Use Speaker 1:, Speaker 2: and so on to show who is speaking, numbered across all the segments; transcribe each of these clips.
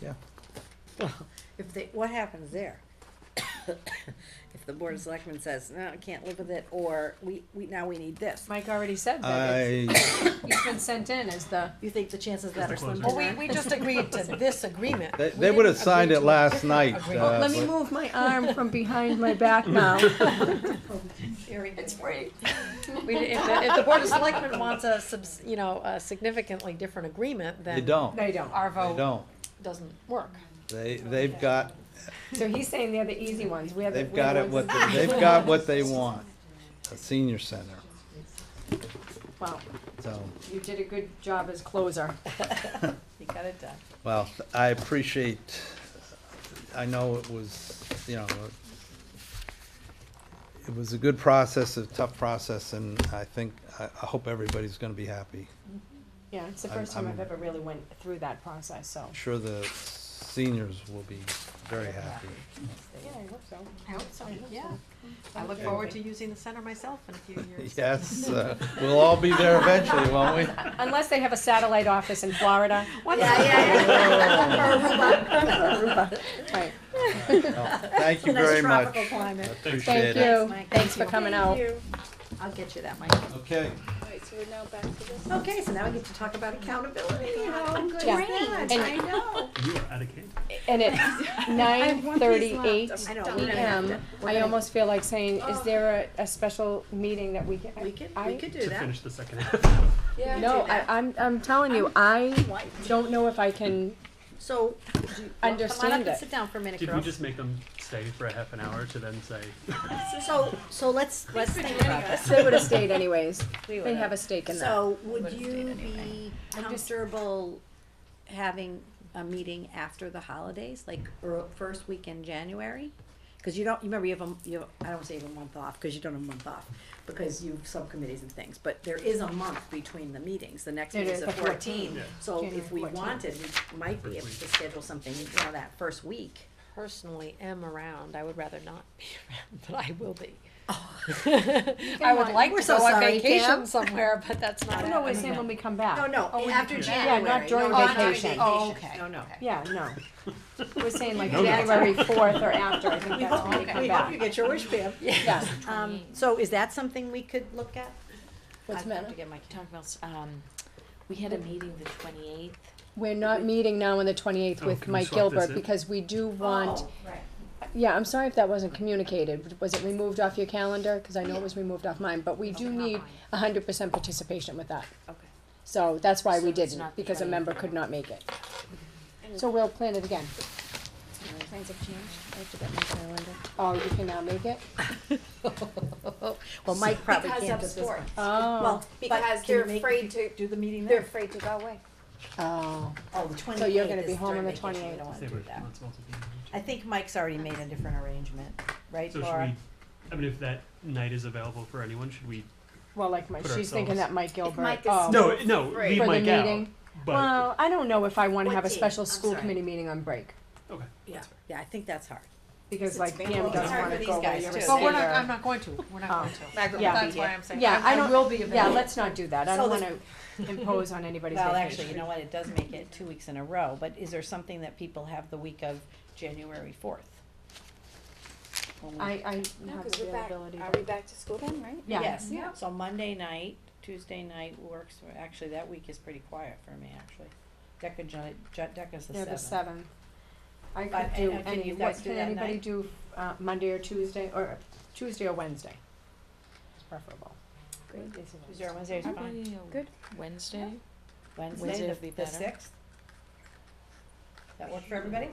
Speaker 1: Yeah.
Speaker 2: If they, what happens there? If the board of selectmen says, no, I can't live with it, or we, we, now we need this.
Speaker 3: Mike already said that it's,
Speaker 1: I, Uh,
Speaker 3: it's been sent in as the.
Speaker 2: You think the chances of
Speaker 4: Just
Speaker 2: that
Speaker 4: the
Speaker 2: are slim to
Speaker 4: closer.
Speaker 5: Well, we,
Speaker 2: none?
Speaker 5: we just agreed to this agreement.
Speaker 1: they,
Speaker 5: We
Speaker 1: they would have
Speaker 5: didn't agree
Speaker 1: signed
Speaker 5: to
Speaker 1: it
Speaker 5: a
Speaker 1: last
Speaker 5: different
Speaker 1: night.
Speaker 5: agreement.
Speaker 1: uh,
Speaker 3: Let me move my arm from behind my back now.
Speaker 5: It's free. We, if the, if the Board of Selectmen wants a subs, you know, a significantly different agreement,
Speaker 1: They
Speaker 5: then
Speaker 1: don't, they
Speaker 3: They don't.
Speaker 5: our vote
Speaker 1: don't.
Speaker 5: doesn't work.
Speaker 1: They, they've got,
Speaker 3: So he's saying they're the easy ones. We have. the-
Speaker 1: they've
Speaker 3: we're the
Speaker 1: got it
Speaker 3: ones
Speaker 1: what,
Speaker 3: that-
Speaker 1: they- they've got what they want. A senior center,
Speaker 3: Well,
Speaker 1: so,
Speaker 3: you did a good job as closer.
Speaker 5: You got it done.
Speaker 1: well, I appreciate, I know it was, you know, it was a good process, a tough process, and I think, I, I hope everybody's gonna be happy.
Speaker 3: Yeah, it's the
Speaker 1: I'm-
Speaker 3: first time
Speaker 1: I'm-
Speaker 3: I've ever really went through that process, so.
Speaker 1: I'm sure the seniors will be very happy.
Speaker 3: Yeah, I hope so.
Speaker 5: I hope so, yeah. I look forward to using the center myself in a few years.
Speaker 1: Yes, uh, we'll all be there eventually, won't we?
Speaker 3: Unless they have a satellite office in Florida.
Speaker 5: Once-
Speaker 3: Right.
Speaker 1: Well, Thank you very much.
Speaker 2: Tropical climate.
Speaker 1: Appreciate
Speaker 3: Thank
Speaker 1: it.
Speaker 3: you. Thanks for coming out.
Speaker 2: I'll get you that, Mike.
Speaker 1: Okay,
Speaker 6: Alright, so we're now back to this.
Speaker 2: Okay, so now we get to talk about accountability, how good is
Speaker 3: Yeah.
Speaker 2: that?
Speaker 3: And-
Speaker 2: I know.
Speaker 4: You are out of cake.
Speaker 3: And it's nine thirty-eight
Speaker 2: I know, we're gonna have
Speaker 3: PM.
Speaker 2: to,
Speaker 3: I almost feel like saying, is there a, a special meeting that we can?
Speaker 2: we could, we
Speaker 3: I-
Speaker 2: could do
Speaker 4: To
Speaker 2: that.
Speaker 4: finish the second half.
Speaker 6: Yeah.
Speaker 3: No,
Speaker 2: do
Speaker 3: I,
Speaker 2: that.
Speaker 3: I'm, I'm telling you, I don't know if I can
Speaker 2: So,
Speaker 5: Come on
Speaker 3: understand
Speaker 5: up and
Speaker 3: it.
Speaker 5: sit down for a minute,
Speaker 4: Did we
Speaker 5: girl.
Speaker 4: just make them stay for a half an hour to then say?
Speaker 2: so, so let's, let's think about this.
Speaker 3: They would have stayed anyways.
Speaker 5: We
Speaker 3: They
Speaker 5: would
Speaker 3: have a stake in that.
Speaker 2: So would you be comfortable having a meeting after the holidays, like ear- first week in January? Cause you don't, you remember you have a, you have, I don't say you have a month off, cause you don't have a month off, because you have subcommittees and things, but there is a month between the meetings, the next
Speaker 3: It
Speaker 2: meeting
Speaker 3: is
Speaker 2: is the
Speaker 3: the 14th.
Speaker 2: fourteenth.
Speaker 4: Yeah.
Speaker 2: So
Speaker 3: January
Speaker 2: if we
Speaker 3: 14th.
Speaker 2: wanted, we might be able
Speaker 4: First
Speaker 2: to schedule something, you know, that first week.
Speaker 5: Personally am around, I would rather not be around, but I will be. I would like
Speaker 2: We're
Speaker 5: to
Speaker 2: so
Speaker 5: go on
Speaker 2: sorry, Pam.
Speaker 5: vacation somewhere, but that's not
Speaker 3: I
Speaker 5: happening.
Speaker 3: know, we're saying when we come
Speaker 2: No,
Speaker 3: back.
Speaker 2: no, after
Speaker 3: Yeah,
Speaker 2: January.
Speaker 3: not during
Speaker 2: No, not during
Speaker 3: vacation.
Speaker 5: Oh, okay.
Speaker 2: No, no.
Speaker 3: Yeah, no. We're saying like
Speaker 4: No, no.
Speaker 3: January fourth or after, I think
Speaker 2: We
Speaker 3: that's when we
Speaker 2: hope,
Speaker 3: come
Speaker 2: we hope you
Speaker 3: back.
Speaker 2: get your wish, Pam.
Speaker 3: Yeah.
Speaker 2: Um, so is that something we could look at?
Speaker 7: What's the matter? To get my talking about, s- um, we had a meeting the twenty eighth.
Speaker 3: We're not meeting now on the twenty-eighth
Speaker 4: Oh,
Speaker 3: with
Speaker 4: can we
Speaker 3: Mike
Speaker 4: swap this
Speaker 3: Gilbert
Speaker 4: in?
Speaker 3: because we do want,
Speaker 2: Oh, right.
Speaker 3: yeah, I'm sorry if that wasn't communicated. Was it removed off your calendar? Cause I know it was removed off mine, but we do
Speaker 7: not
Speaker 3: need
Speaker 7: mine.
Speaker 3: hundred percent participation with that.
Speaker 7: Okay.
Speaker 3: So that's why
Speaker 7: So
Speaker 3: we
Speaker 7: it's
Speaker 3: didn't,
Speaker 7: not the
Speaker 3: because a
Speaker 7: 28th.
Speaker 3: member could not make it. So we'll plan it again.
Speaker 7: Plans have changed, I have to get my calendar.
Speaker 3: Oh, you can now make it?
Speaker 2: Well, Mike probably can't.
Speaker 7: Because of
Speaker 2: at this
Speaker 7: sports,
Speaker 2: point.
Speaker 3: Oh,
Speaker 2: Well, but can
Speaker 7: because
Speaker 2: you
Speaker 7: they're
Speaker 2: make-
Speaker 7: afraid to,
Speaker 2: Do the meeting
Speaker 7: they're
Speaker 2: there?
Speaker 7: afraid to go away.
Speaker 3: oh.
Speaker 2: Oh, the twenty-eighth
Speaker 3: So you're gonna be
Speaker 2: is
Speaker 3: home on
Speaker 2: during
Speaker 3: the
Speaker 2: vacation. We
Speaker 3: 28th.
Speaker 2: don't wanna
Speaker 4: They
Speaker 2: do
Speaker 4: were
Speaker 2: that.
Speaker 4: not supposed to be.
Speaker 2: I think Mike's already made a different arrangement, right,
Speaker 4: So should
Speaker 2: Laura?
Speaker 4: we, I mean, if that night is available for anyone, should we?
Speaker 3: Well, like my,
Speaker 4: Put
Speaker 3: she's thinking
Speaker 4: ourselves-
Speaker 3: that Mike Gilbert.
Speaker 7: Mike is
Speaker 3: Oh,
Speaker 4: No, no,
Speaker 7: Right.
Speaker 4: leave
Speaker 3: For the
Speaker 4: Mike out.
Speaker 3: meeting?
Speaker 4: But,
Speaker 3: Well, I don't know if I want to
Speaker 2: What
Speaker 3: have a
Speaker 2: date?
Speaker 3: special
Speaker 2: I'm
Speaker 3: school
Speaker 2: sorry.
Speaker 3: committee meeting on break
Speaker 4: okay.
Speaker 2: Yeah, yeah, I think that's hard.
Speaker 3: because like
Speaker 2: been
Speaker 3: Pam
Speaker 2: closed.
Speaker 3: doesn't
Speaker 2: Sorry
Speaker 3: want
Speaker 2: for
Speaker 3: to
Speaker 2: these
Speaker 3: go away.
Speaker 2: guys,
Speaker 3: You're
Speaker 2: too.
Speaker 3: a
Speaker 2: But we're
Speaker 3: senior.
Speaker 7: not going to, we're not
Speaker 3: Oh.
Speaker 7: to.
Speaker 3: Yeah.
Speaker 7: That's why I'm saying.
Speaker 3: Yeah, I
Speaker 7: will
Speaker 3: don't.
Speaker 7: be available.
Speaker 3: Yeah, let's not do that. I
Speaker 2: So
Speaker 3: don't want
Speaker 2: the-
Speaker 3: to impose on anybody's
Speaker 2: Well, actually, you
Speaker 3: vacation.
Speaker 2: know what, it does make it two weeks in a row, but is there something that people have the week of January fourth?
Speaker 3: I, I
Speaker 7: No,
Speaker 3: have
Speaker 7: 'cause we're back,
Speaker 3: availability.
Speaker 7: are we back to school then, right?
Speaker 3: Yeah.
Speaker 2: Yes,
Speaker 7: Yeah.
Speaker 2: so Monday night, Tuesday night works, for- actually, that week is pretty quiet for me, actually. Deca, Ju- Ju- Deca's the
Speaker 3: Yeah, the
Speaker 2: seventh.
Speaker 3: seventh. I
Speaker 2: But,
Speaker 3: could
Speaker 2: and-
Speaker 3: do
Speaker 2: and can
Speaker 3: any,
Speaker 2: you
Speaker 3: what
Speaker 2: guys do
Speaker 3: can
Speaker 2: that
Speaker 3: anybody
Speaker 2: night?
Speaker 3: do, uh, Monday or Tuesday, or Tuesday or Wednesday? Preferable.
Speaker 7: Great.
Speaker 3: Tuesday or
Speaker 2: Tuesday or Wednesday is fine.
Speaker 7: Good. Wednesday? Wednesday
Speaker 2: Wednesday,
Speaker 7: would
Speaker 2: the,
Speaker 7: be
Speaker 2: the
Speaker 7: better.
Speaker 2: sixth? That work for everybody?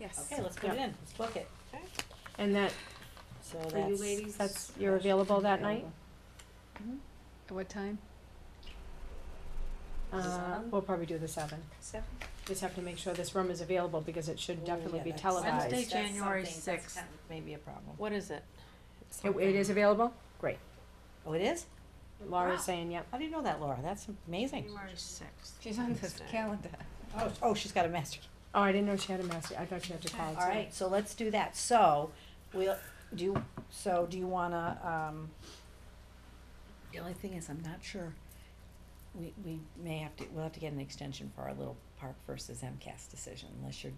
Speaker 7: Yes.
Speaker 2: Okay, let's put it
Speaker 3: Yeah.
Speaker 2: in, let's book it.
Speaker 3: And that,
Speaker 2: So
Speaker 3: for you
Speaker 2: that's.
Speaker 3: ladies, that's, you're available that night?
Speaker 7: What time?
Speaker 3: Uh,
Speaker 7: Seven?
Speaker 3: we'll probably do the seventh.
Speaker 7: Seven.
Speaker 3: Just have to make sure this room is available because it should
Speaker 2: Ooh,
Speaker 3: definitely
Speaker 2: yeah,
Speaker 3: be
Speaker 2: that's-
Speaker 3: televised.
Speaker 2: Wednesday,
Speaker 7: January
Speaker 2: That's
Speaker 7: 6th.
Speaker 2: kind of maybe a problem.
Speaker 7: What is it?
Speaker 3: It, it is available? Great.
Speaker 2: Oh, it is?
Speaker 3: Laura's
Speaker 7: Wow.
Speaker 3: saying, yep.
Speaker 2: How do you know that, Laura? That's amazing.
Speaker 7: sixth. She's on this calendar.
Speaker 2: Oh, oh, she's got a master.
Speaker 3: Oh, I didn't know she had a master. I thought she had to call. and
Speaker 2: All
Speaker 3: say.
Speaker 2: right, so let's do that. So, we'll, do, you- so do you wanna, um, the only thing is, I'm not sure. We, we may have to, we'll have to get an extension for our little park versus MCAS decision unless you're